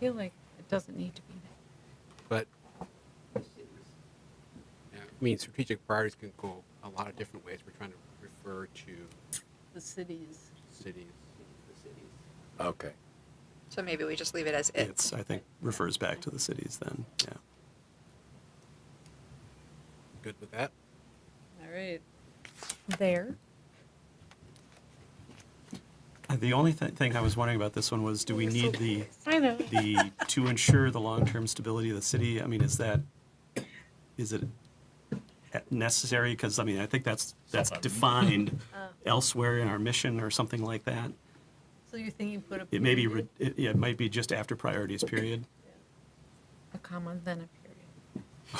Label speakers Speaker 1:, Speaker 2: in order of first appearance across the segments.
Speaker 1: feel like it doesn't need to be there.
Speaker 2: but yeah, I mean, strategic priorities can go a lot of different ways. We're trying to refer to
Speaker 3: The cities.
Speaker 2: cities.
Speaker 4: Okay.
Speaker 5: So maybe we just leave it as it.
Speaker 6: It's, I think, refers back to the cities then, yeah.
Speaker 2: Good with that?
Speaker 3: All right.
Speaker 1: There.
Speaker 6: Uh, The only thi- thing I was wondering about this one was, do we need the,
Speaker 1: I know.
Speaker 6: the, to ensure the long-term stability of the city? I mean, is that, is it necessary? Because, I mean, I think that's, that's defined
Speaker 3: Oh.
Speaker 6: elsewhere in our mission or something like that.
Speaker 3: So you're thinking put a.
Speaker 6: It may be, re- it yeah, it might be just after priorities period.
Speaker 1: A comma, then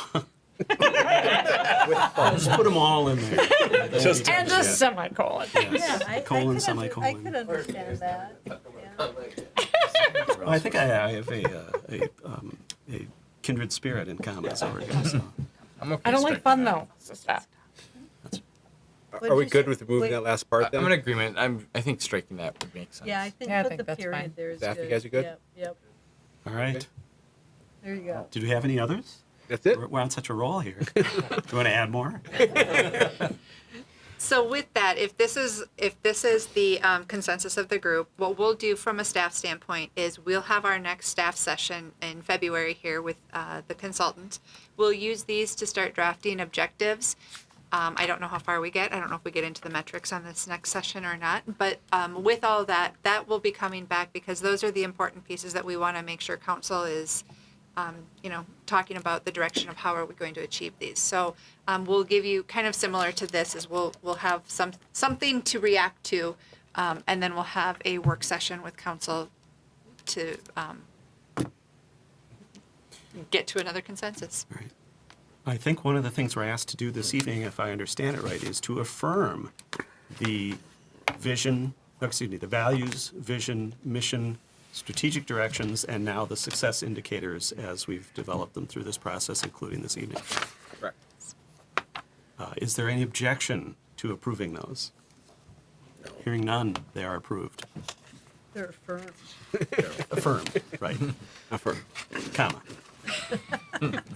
Speaker 1: a period.
Speaker 3: Oh.
Speaker 6: Just put them all in there.
Speaker 4: Just
Speaker 1: And a semicolon.
Speaker 3: Yeah, I, I could,
Speaker 6: Colon,
Speaker 3: under- I
Speaker 6: semicolon.
Speaker 3: could understand that. Yeah.
Speaker 6: Well, I think I, I have a, uh, a, um, a kindred spirit in common, so we're gonna, so.
Speaker 4: I'm okay
Speaker 1: I don't like
Speaker 4: striking
Speaker 1: fun
Speaker 4: that.
Speaker 1: though. So stop.
Speaker 3: What'd
Speaker 2: Are we
Speaker 3: you
Speaker 2: good
Speaker 3: say?
Speaker 2: with removing
Speaker 3: Wait,
Speaker 2: that last part
Speaker 4: I-
Speaker 2: then?
Speaker 4: I'm in agreement. I'm. I think striking that would make sense.
Speaker 3: Yeah, I think
Speaker 1: Yeah, I
Speaker 3: put
Speaker 1: think
Speaker 3: the
Speaker 1: that's
Speaker 3: period
Speaker 1: fine.
Speaker 3: there is
Speaker 2: Staff, you
Speaker 3: good.
Speaker 2: guys are good?
Speaker 3: Yep, yep.
Speaker 6: All right.
Speaker 3: There you
Speaker 2: Oh.
Speaker 3: go.
Speaker 6: Did we have any others?
Speaker 2: That's it?
Speaker 6: We're we're on such a roll here. Do you want to add more?
Speaker 5: So with that, if this is, if this is the um, consensus of the group, what we'll do from a staff standpoint is we'll have our next staff session in February here with uh, the consultant. We'll use these to start drafting objectives. Um, I don't know how far we get. I don't know if we get into the metrics on this next session or not. But um, with all that, that will be coming back because those are the important pieces that we want to make sure council is um, you know, talking about the direction of how are we going to achieve these. So um, we'll give you kind of similar to this is we'll we'll have some something to react to, um, and then we'll have a work session with council to um, get to another consensus.
Speaker 6: All right. I think one of the things we're asked to do this evening, if I understand it right, is to affirm the vision, no, excuse me, the values, vision, mission, strategic directions, and now the success indicators as we've developed them through this process, including this evening.
Speaker 4: Correct.
Speaker 6: Uh, Is there any objection to approving those? Hearing none, they are approved.
Speaker 3: They're firm.
Speaker 6: Affirmed, right,
Speaker 2: Affirm.
Speaker 6: comma.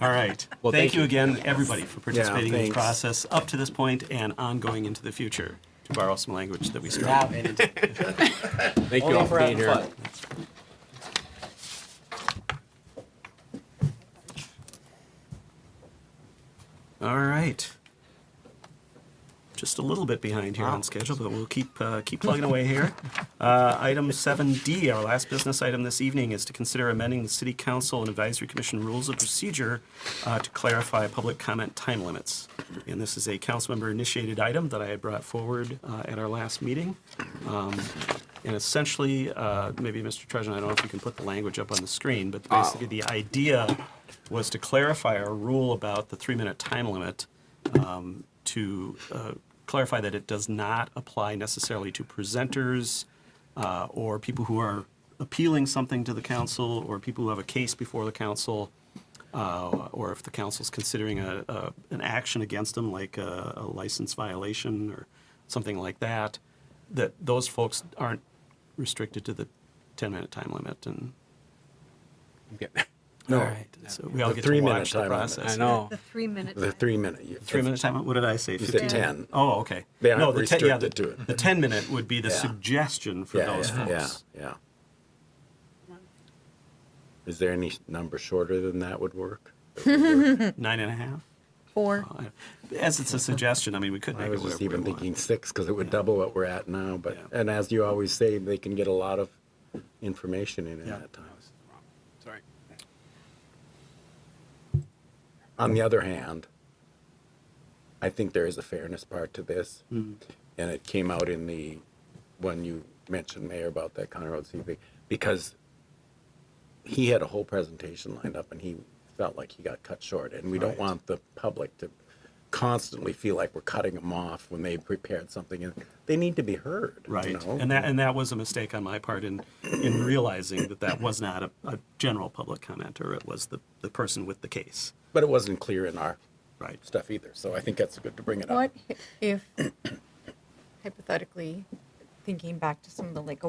Speaker 6: All right.
Speaker 2: Well, thank
Speaker 6: Thank you
Speaker 2: you.
Speaker 6: again, everybody, for participating in this
Speaker 2: thanks.
Speaker 6: process up to this point and ongoing into the future, to borrow some language that we started.
Speaker 2: Thank you all for being here.
Speaker 6: All right. Just a little bit behind here on schedule, but we'll keep uh, keep plugging away here. Uh, item 7D, our last business item this evening, is to consider amending the City Council and Advisory Commission rules of procedure uh, to clarify public comment time limits. And this is a council member initiated item that I had brought forward uh, at our last meeting. Um, and essentially, uh, maybe Mr. Trezor, I don't know if you can put the language up on the screen, but basically the idea was to clarify our rule about the three-minute time limit um, to uh, clarify that it does not apply necessarily to presenters uh, or people who are appealing something to the council or people who have a case before the council uh, or if the council's considering a, a, an action against them, like a, a license violation or something like that, that those folks aren't restricted to the 10-minute time limit. And
Speaker 2: I'm getting there.
Speaker 6: no, so we all
Speaker 7: the
Speaker 6: get to
Speaker 7: three-minute
Speaker 6: watch the
Speaker 7: time limit.
Speaker 6: process.
Speaker 2: I know.
Speaker 3: The three minute.
Speaker 7: The three minute.
Speaker 6: Three-minute time limit. What did I say?
Speaker 7: You
Speaker 6: 15?
Speaker 7: said ten.
Speaker 6: Oh, okay.
Speaker 7: They
Speaker 6: no,
Speaker 7: aren't
Speaker 6: the ten, yeah, the,
Speaker 7: restricted to it.
Speaker 6: the ten minute would be the
Speaker 7: Yeah.
Speaker 6: suggestion for
Speaker 7: Yeah,
Speaker 6: those
Speaker 7: yeah, yeah,
Speaker 6: folks.
Speaker 7: yeah. Is there any number shorter than that would work?
Speaker 2: Hmm.
Speaker 6: Nine and a half.
Speaker 1: Four.
Speaker 6: Uh, As it's a suggestion, I mean, we could make
Speaker 7: I was
Speaker 6: it whatever
Speaker 7: just
Speaker 6: we
Speaker 7: even
Speaker 6: want.
Speaker 7: thinking six because it would double what we're at now. But
Speaker 6: Yeah.
Speaker 7: and as you always say, they can get a lot of information in at
Speaker 6: Yeah.
Speaker 7: that time.
Speaker 2: Sorry.
Speaker 7: On the other hand, I think there is a fairness part to this,
Speaker 6: Mm-hmm.
Speaker 7: and it came out in the when you mentioned Mayor about that Conrad CV because he had a whole presentation lined up and he felt like he got cut short, and we don't
Speaker 6: Right.
Speaker 7: want the public to constantly feel like we're cutting them off when they prepared something and they need to be heard you
Speaker 6: Right,
Speaker 7: know?
Speaker 6: and that and that was a mistake on my part in in realizing that that was not a, a general public commenter. It was the the person with the case.
Speaker 7: but it wasn't clear in our
Speaker 6: Right.
Speaker 7: stuff either so i think that's good to bring it up
Speaker 1: What if, hypothetically, thinking back to some of the like